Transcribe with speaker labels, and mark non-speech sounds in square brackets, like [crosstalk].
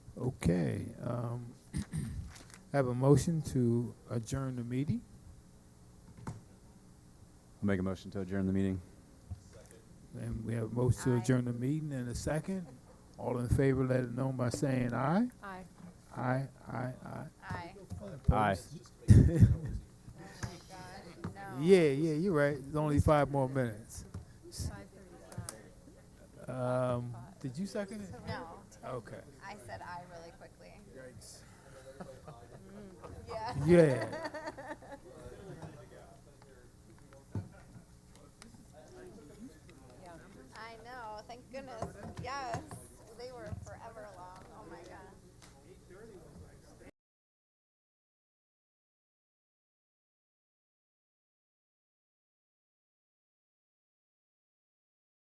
Speaker 1: Okay. um, I have a motion to adjourn the meeting.
Speaker 2: I'll make a motion to adjourn the meeting.
Speaker 1: And we have a motion to
Speaker 3: Aye.
Speaker 1: adjourn the meeting and a second. All in favor, let it known by saying aye.
Speaker 3: Aye.
Speaker 1: Aye, aye, aye.
Speaker 3: Aye.
Speaker 2: Aye.
Speaker 3: God, no.
Speaker 1: [laughs] Yeah, yeah, you're right. It's only five more minutes.
Speaker 3: Five thirty-five.
Speaker 1: Um, Did you second it?
Speaker 3: No,
Speaker 1: Okay.
Speaker 3: I said aye really quickly. Mm, Yeah.
Speaker 1: Yeah.
Speaker 3: I know, thank goodness. Oh